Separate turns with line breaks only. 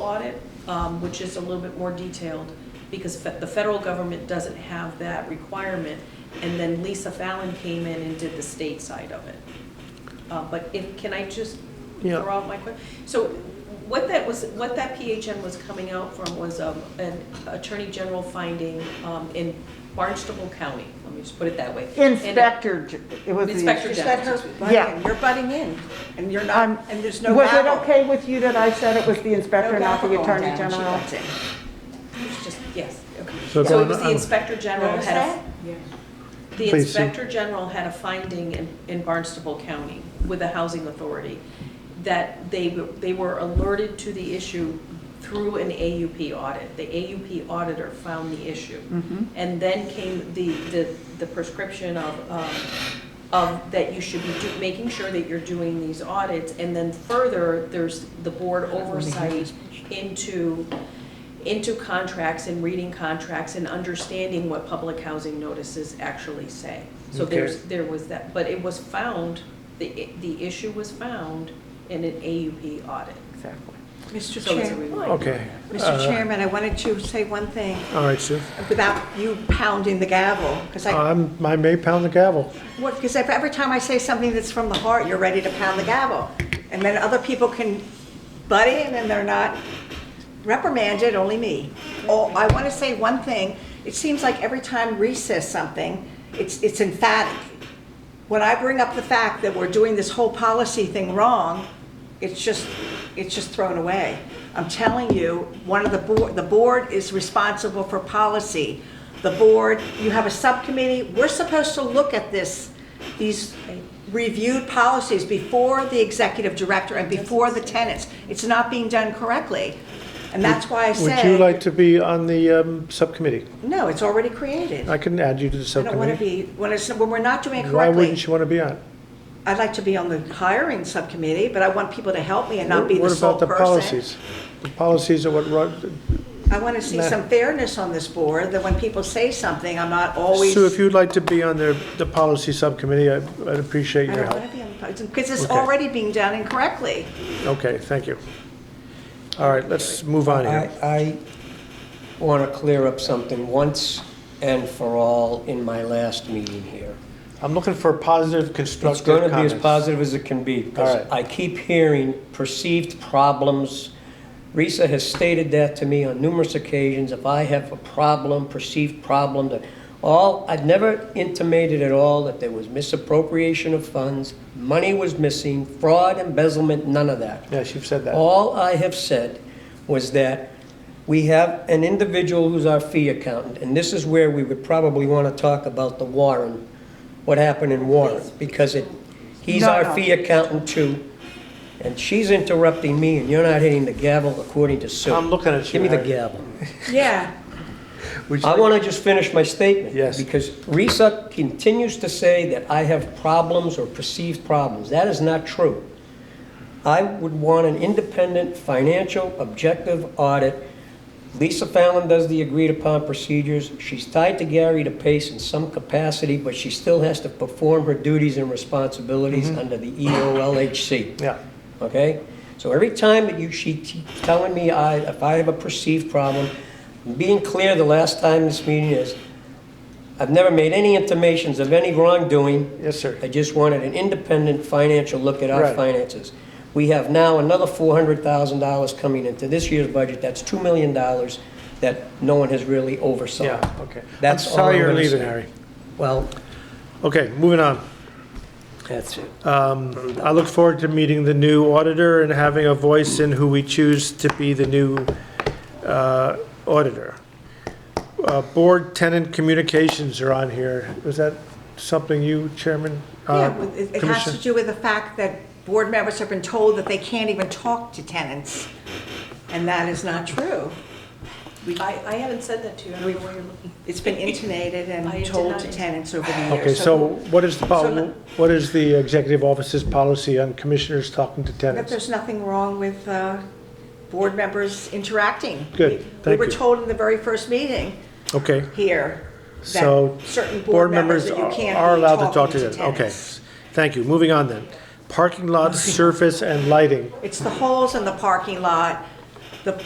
audit, um, which is a little bit more detailed, because fe- the federal government doesn't have that requirement. And then Lisa Fallon came in and did the state side of it. Uh, But if, can I just
Yeah.
throw out my question? So what that was, what that PHN was coming out from was um, an attorney general finding um, in Barnstable County, let me just put it that way. And it-
Inspector, J- it was the.
Inspector
Just let her
General.
butt
Yeah.
in. You're butting in, and you're
I'm-
not, and there's no
Was it
gavel.
okay with you that I said it was the
No
inspector, not
gavel
the
going
attorney
down. She
general?
butts in.
It's just, yes, okay. So
So
it
going
was the
on-
inspector general
Notice
had a
that?
The
Please, Sue.
Inspector General had a finding in, in Barnstable County with the Housing Authority that they, w- they were alerted to the issue through an AUP audit. The AUP auditor found the issue. And then came the, the, the prescription of, um, of um, that you should be do- making sure that you're doing these audits. And then further, there's the board oversight into, into contracts and reading contracts and understanding what public housing notices actually say. So
Okay.
there's, there was that, but it was found, the, the issue was found in an AUP audit.
Exactly.
Mr.
So it's a
Chairman,
reminder.
Okay.
Mr.
uh,
Chairman, I wanted to say one thing
All right, Sue.
without you pounding the gavel, because
Uh.
I,
I'm, I may pound the gavel.
because every time I say something that's from the heart, you're ready to pound the gavel. And then other people can butt in and they're not reprimanded, only me. Oh, I want to say one thing. It seems like every time Reese says something, it's, it's emphatic. when I bring up the fact that we're doing this whole policy thing wrong, it's just, it's just thrown away. I'm telling you, one of the board, the board is responsible for policy. The board, you have a subcommittee, we're supposed to look at this, these reviewed policies before the executive director and before the tenants. It's not being done correctly. And that's why I
Would you like
said,
to be on the um, subcommittee?
no, it's already created.
I can add you to the
I don't want to
subcommittee.
be, when it's, when we're not doing it correctly.
Why wouldn't you want to be on?
I'd like to be on the hiring subcommittee, but I want people to help me and not be the
What
sole
about the
person.
policies? The policies are what run,
I want to see
Nah.
some fairness on this board, that when people say something, I'm not always.
Sue, if you'd like to be on the, the policy subcommittee, I- I'd appreciate
I
your
don't
help.
want to be on the, because it's
Okay. Uh,
already being done incorrectly.
Okay, thank you. All right, let's move on here.
I, I want to clear up something once and for all in my last meeting here.
I'm looking for positive,
It's
constructive
going
comments.
to be as positive as it can be, because
All
I keep hearing perceived problems. Risa has stated that to me on numerous occasions, if I have a problem, perceived problem, that all, I've never intimated at all that there was misappropriation of funds, money was missing, fraud, embezzlement, none of that.
Yes, you've said that.
All I have said was that we have an individual who's our fee accountant, and this is where we would probably want to talk about the Warren, what happened in Warren, because it, he's
No,
our
no.
fee accountant too, and she's interrupting me, and you're not hitting the gavel according to Sue.
I'm looking at you,
Give me the
Harry.
gavel.
Yeah.
Would you
I
like-
want to just finish my statement.
Yes.
Because Risa continues to say that I have problems or perceived problems. That is not true. I would want an independent, financial, objective audit. Lisa Fallon does the agreed-upon procedures. She's tied to Gary to Pace in some capacity, but she still has to perform her duties and responsibilities
Mm-hmm.
under the E EOLHC
Yeah,
okay? So every time that you, she keeps telling me I, if I have a perceived problem, being clear the last time this meeting is, I've never made any intimations of any wrongdoing.
yes, sir.
I just wanted an independent financial look at our
Right.
finances. We have now another four hundred thousand dollars coming into this year's budget, that's two million dollars that no one has really oversaw.
Yeah, okay. I'm
That's all
sorry
I'm
you're
gonna
leaving,
say.
Harry.
Well,
Okay, moving on.
that's it.
Um, I look forward to meeting the new auditor and having a voice in who we choose to be the new uh, auditor. Uh, Board tenant communications are on here. Was that something you, Chairman?
Yeah,
uh,
well, it it has
Commissioner?
to do with the fact that board members have been told that they can't even talk to tenants, and that is not true.
I, I haven't said that to you, I don't know where you're looking.
It's been intimated
I
and
did
told
not-
to tenants over the years.
Okay, so what is the,
so-
pol- what is the executive office's policy on commissioners talking to
That
tenants?
there's nothing wrong with uh, board members interacting.
Good,
We-
thank
We were
you.
told in the very first meeting
Okay,
here
So,
that certain
board members
that
are
you can't
are
be
allowed to talk to tenants.
talking
Okay,
tenants.
thank you. Moving on then. Parking lot surface and lighting.
It's the holes in the parking lot, the